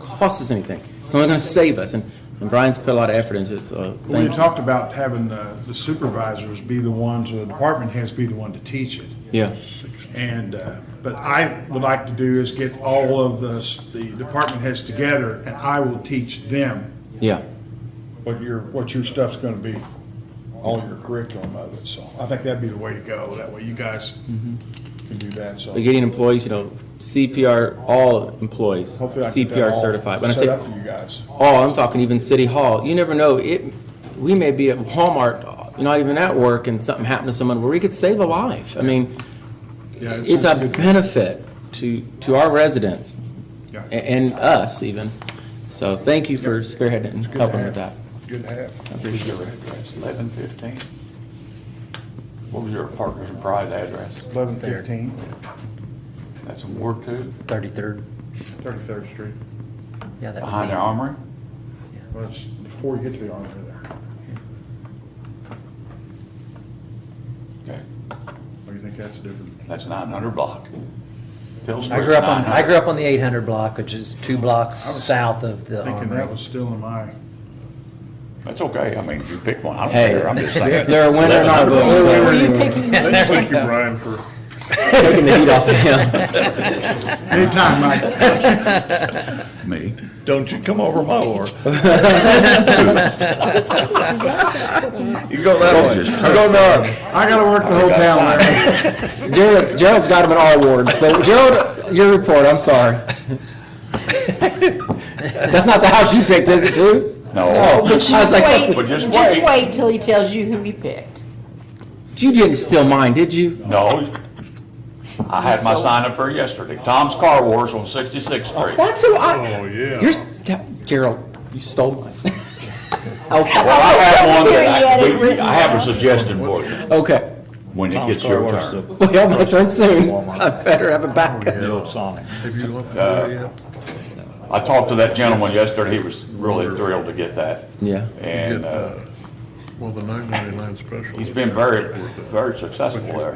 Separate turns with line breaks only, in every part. cost us anything. It's only going to save us, and and Brian's put a lot of effort into it, so uh,
We
thank you.
talked about having the the supervisors be the ones, or the department heads be the one to teach it.
Yeah,
And, uh, but I would like to do is get all of the, s- the department heads together, and I will teach them
yeah.
what your, what your stuff's gonna be, all your curriculum of it, so I think that'd be the way to go, that way you guys
Mm-hmm.
can do that, so.
But getting employees, you know, CPR, all employees,
Hopefully I can get
CPR
that all
certified. When I say
Set up for you guys.
all, I'm talking even City Hall, you never know, it, we may be at Walmart, not even at work, and something happened to someone where we could save a life. I mean,
Yeah, it
it's a
sounds good.
benefit to, to our residents
Yeah.
a- and us even. So thank you for spearheading and
Good to
helping with that.
have. Good to have.
appreciate
Eleven fifteen. What was your Partners in Pride address?
Eleven fifteen,
That's in Ward Two,
33rd.
Thirty-third Street.
Yeah, that
behind the
would
Armory?
Well, it's before you get to the armory there.
Okay,
Or you think that's different?
that's nine hundred block. Phil
be. I
Street,
grew up on,
900.
I grew up on the 800 block, which is two blocks
I was
south of the
Thinking that
Armory.
was still in my,
That's okay, I mean, you pick one, I don't
Hey,
care, I'm just saying.
they're a winner in our book, so-
Were you picking?
thank you, Brian, for.
Taking the heat off of him.
Anytime, Mike.
Me?
Don't you come over my war. You go that way. I go north.
I gotta work the whole town, Larry.
Gerald, Gerald's got him an R award, so Gerald, your report, I'm sorry. That's not the house you picked, is it, too?
No,
I was like, "Oh,
But just
Just
wait.
wait till he tells you who he picked.
You didn't steal mine, did you?
no. I had my sign up there yesterday, Tom's Car Wars on Sixty-Sixth Street.
That's who I,
Oh, yeah.
you're, Gerald, you stole mine. Okay,
Well, I have one
Here he had
that
it
I, we-
written
I have a
down.
suggestion for you,
okay.
when it gets your turn.
Well, my turn soon. I better have a backup.
The old Sonic.
Have you looked at it yet?
I talked to that gentleman yesterday, he was really thrilled to get that.
Yeah.
And, uh,
Well, the nine ninety-nine special.
he's been very, very successful there,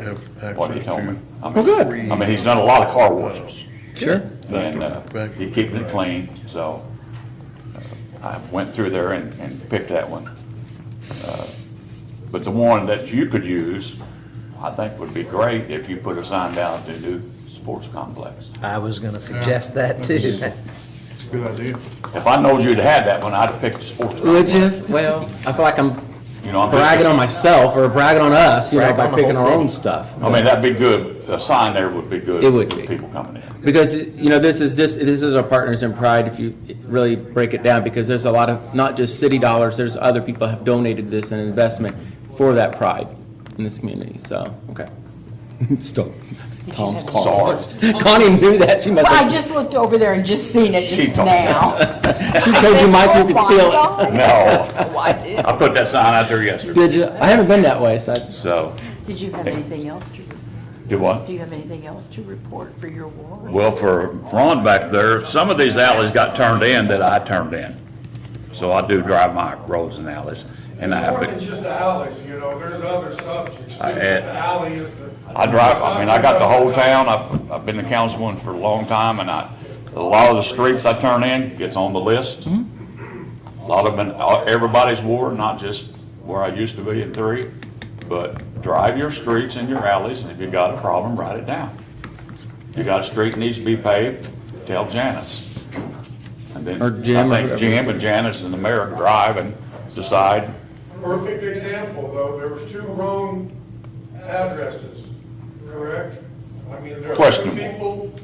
what he told me. I mean-
good.
I mean, he's done a lot of car washes,
Sure.
and, uh, he's keeping it clean, so, uh, I went through there and, and picked that one. Uh, But the one that you could use, I think would be great if you put a sign down at the new sports complex.
I was going to suggest that too.
It's a good idea.
If I knowed you'd had that one, I'd have picked the sports
Would
complex.
you? Well, I feel like I'm
You know, I'm just-
bragging on myself or bragging on us, you know,
Brag
by
on the
picking
whole
our
city.
own stuff.
I mean, that'd be good, a sign there would be good.
It would
for
be.
People coming in.
Because, you know, this is just, this is our partners in pride, if you really break it down, because there's a lot of, not just city dollars, there's other people have donated this and investment for that pride in this community, so, okay. Stop. Tom's
Sorry.
calling. Connie knew that, she must
Well, I
have,
just looked over there and just seen it
She
just
told-
now.
she told you my two could steal it.
No,
Why did,
I put that sign out there yesterday,
Did you? I haven't been that way, so, I-
so,
did you have anything else to,
do what?
do you have anything else to report for your ward?
Well, for Ron back there, some of these alleys got turned in that I turned in. So I do drive my roads and alleys, and I have
More than
to,
just the alleys, you know, there's other subjects too.
I-
The alley is the.
I drive, I mean, I got the whole town, I've, I've been a councilman for a long time, and I, a lot of the streets I turn in gets on the list. A lot of them, in everybody's ward, not just where I used to be in three, but drive your streets and your alleys, and if you got a problem, write it down. You got a street that needs to be paved, tell Janice. And then,
Or Jim,
I think
or-
Jim and Janice and the mayor drive and decide,
Perfect example, though, there was two wrong addresses, correct? I mean, there were two
Questionable.
people,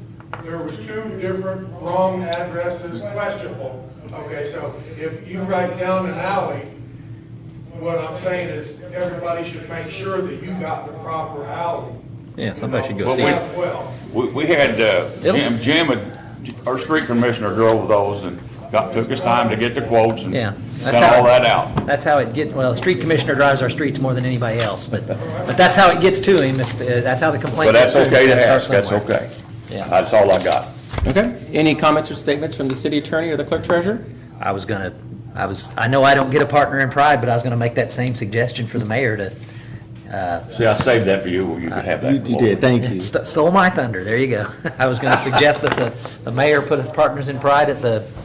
there was two different wrong addresses, questionable. Okay, so if you write down an alley, what I'm saying is, everybody should make sure that you got the proper alley.
Yeah, somebody should go
Well,
see
we-
it.
As well.
We, we had, uh, Jim, Jim, had- our street commissioner drove those and got, took his time to get the quotes and
Yeah.
sent
that's how
all that out.
That's how it gets, well, the street commissioner drives our streets more than anybody else, but, but that's how it gets to him, if, uh, that's how the complaint
But
gets
that's
to him.
okay to
It starts
ask, that's
somewhere.
okay.
Yeah.
That's all I got.
okay. Any comments or statements from the city attorney or the clerk treasurer?
I was gonna, I was, I know I don't get a partner in pride, but I was gonna make that same suggestion for the mayor to,
See, I saved that for you, where you
Uh,
could have that.
You you did, thank you.
St- stole my thunder, there you go. I was gonna suggest that the, the mayor put partners in pride at the